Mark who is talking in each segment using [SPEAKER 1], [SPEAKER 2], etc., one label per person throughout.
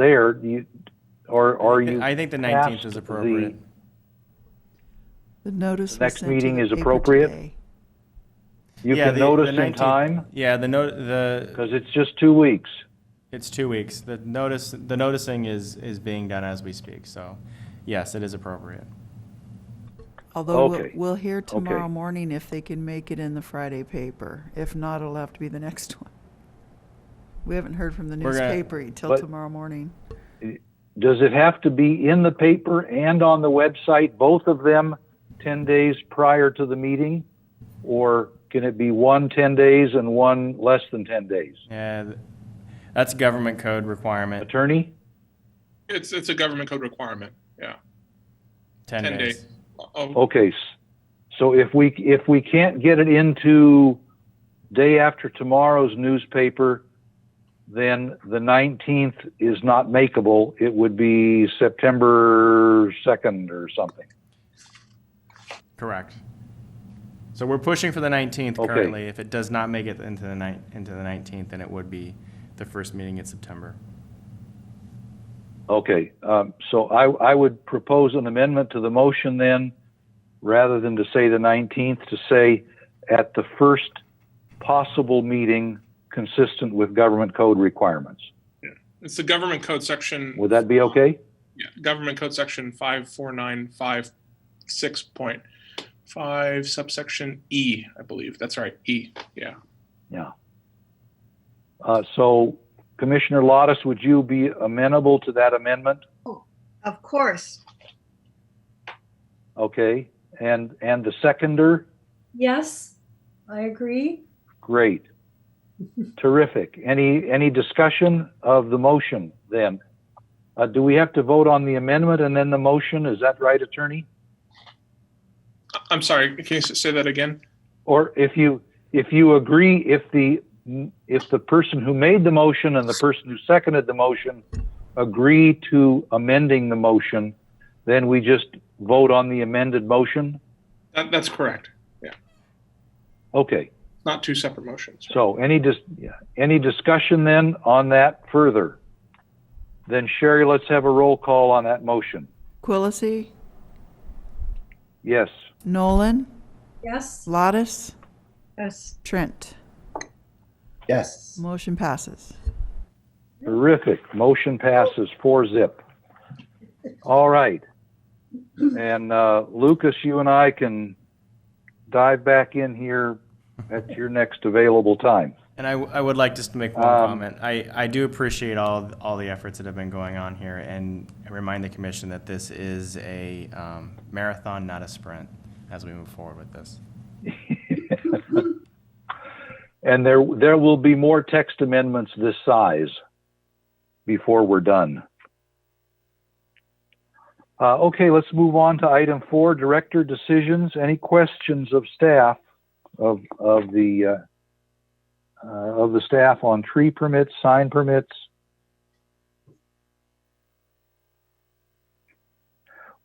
[SPEAKER 1] there, do you, or are you?
[SPEAKER 2] I think the 19th is
[SPEAKER 1] past
[SPEAKER 2] appropriate.
[SPEAKER 3] The notice was
[SPEAKER 1] Next
[SPEAKER 3] sent to
[SPEAKER 1] meeting
[SPEAKER 3] the
[SPEAKER 1] is
[SPEAKER 3] paper
[SPEAKER 1] appropriate?
[SPEAKER 3] today.
[SPEAKER 1] The, you
[SPEAKER 2] Yeah,
[SPEAKER 1] can
[SPEAKER 2] the-
[SPEAKER 1] notice
[SPEAKER 2] the
[SPEAKER 1] in
[SPEAKER 2] 19th
[SPEAKER 1] time
[SPEAKER 2] Yeah, the no, the,
[SPEAKER 1] because it's just two weeks.
[SPEAKER 2] it's two weeks. The notice, the noticing is, is being done as we speak, so yes, it is appropriate.
[SPEAKER 3] Although we'll,
[SPEAKER 1] Okay.
[SPEAKER 3] we'll hear tomorrow
[SPEAKER 1] Okay.
[SPEAKER 3] morning if they can make it in the Friday paper. If not, it'll have to be the next one. We haven't heard from the
[SPEAKER 2] We're gonna-
[SPEAKER 3] newspaper until
[SPEAKER 1] But-
[SPEAKER 3] tomorrow morning.
[SPEAKER 1] Does it have to be in the paper and on the website, both of them, 10 days prior to the meeting? Or can it be one 10 days and one less than 10 days?
[SPEAKER 2] Yeah, th- that's a government code requirement,
[SPEAKER 1] Attorney?
[SPEAKER 4] It's, it's a government code requirement, yeah,
[SPEAKER 2] 10
[SPEAKER 4] 10
[SPEAKER 2] days.
[SPEAKER 4] days. Oh,
[SPEAKER 1] Okay, s- so if we, if we can't get it into day after tomorrow's newspaper, then the 19th is not makeable. It would be September 2nd or something.
[SPEAKER 2] Correct. So we're pushing for the 19th
[SPEAKER 1] Okay.
[SPEAKER 2] currently. If it does not make it into the night, into the 19th, then it would be the first meeting in September.
[SPEAKER 1] Okay, um, so I, I would propose an amendment to the motion then, rather than to say the 19th, to say at the first possible meeting consistent with government code requirements.
[SPEAKER 4] it's the government code section.
[SPEAKER 1] Would that be okay?
[SPEAKER 4] Yeah, government code section five four nine five six point five subsection E, I believe. That's right, E, yeah.
[SPEAKER 1] Yeah. Uh, so Commissioner Lottis, would you be amenable to that amendment?
[SPEAKER 5] Of course.
[SPEAKER 1] Okay, and, and the seconder?
[SPEAKER 6] Yes, I agree.
[SPEAKER 1] Great. Terrific. Any, any discussion of the motion then? Uh, do we have to vote on the amendment and then the motion? Is that right, attorney?
[SPEAKER 4] I'm sorry, can you s- say that again?
[SPEAKER 1] Or if you, if you agree, if the, if the person who made the motion and the person who seconded the motion agree to amending the motion, then we just vote on the amended motion?
[SPEAKER 4] That, that's correct.
[SPEAKER 1] Okay.
[SPEAKER 4] Not two separate motions.
[SPEAKER 1] So any dis- yeah, any discussion then on that further? Then Sherry, let's have a roll call on that motion.
[SPEAKER 3] Quillisi,
[SPEAKER 1] Yes.
[SPEAKER 3] Nolan,
[SPEAKER 6] Yes,
[SPEAKER 3] Lottis,
[SPEAKER 5] Yes.
[SPEAKER 3] Trent.
[SPEAKER 7] Yes.
[SPEAKER 3] Motion passes.
[SPEAKER 1] Terrific. Motion passes four zip. All right. And uh, Lucas, you and I can dive back in here at your next available time.
[SPEAKER 2] And I, w- I would like just to make one
[SPEAKER 1] Um,
[SPEAKER 2] comment. I, I do appreciate all, all the efforts that have been going on here and remind the commission that this is a um, marathon, not a sprint, as we move forward with this.
[SPEAKER 1] And there there will be more text amendments this size before we're done. Uh, okay, let's move on to item four, director decisions. Any questions of staff of of the uh, uh, of the staff on tree permits, sign permits?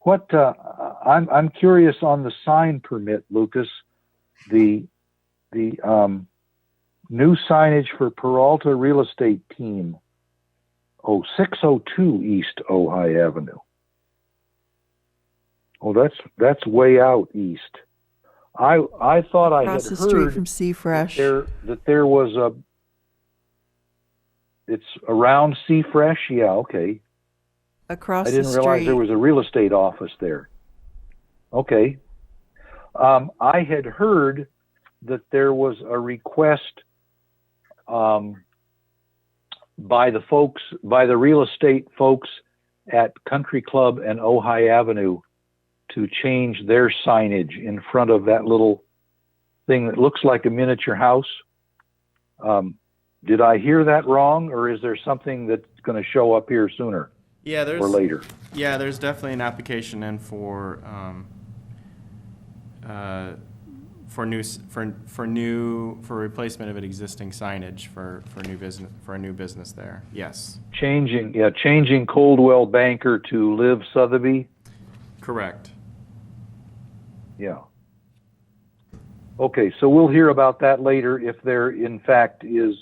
[SPEAKER 1] What uh, I'm I'm curious on the sign permit, Lucas. The the um, new signage for Peralta Real Estate Team, oh, 602 East Ojai Avenue. Oh, that's that's way out east. I I thought I had
[SPEAKER 3] Across the street
[SPEAKER 1] heard
[SPEAKER 3] from Sea
[SPEAKER 1] that
[SPEAKER 3] Fresh.
[SPEAKER 1] there that there was a. It's around Sea Fresh, yeah, okay.
[SPEAKER 3] Across
[SPEAKER 1] I
[SPEAKER 3] the
[SPEAKER 1] didn't realize there
[SPEAKER 3] street.
[SPEAKER 1] was a real estate office there. Okay. Um, I had heard that there was a request um, by the folks, by the real estate folks at Country Club and Ojai Avenue to change their signage in front of that little thing that looks like a miniature house. Um, did I hear that wrong, or is there something that's going to show up here sooner
[SPEAKER 2] Yeah, there's.
[SPEAKER 1] or later?
[SPEAKER 2] Yeah, there's definitely an application in for, um, uh, for new, s- for, for new, for replacement of an existing signage for, for new business, for a new business there, yes.
[SPEAKER 1] Changing, yeah, changing Coldwell Banker to Live Sotheby,
[SPEAKER 2] Correct.
[SPEAKER 1] yeah. Okay, so we'll hear about that later if there in fact is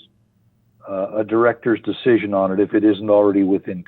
[SPEAKER 1] uh, a director's decision on it, if it isn't already within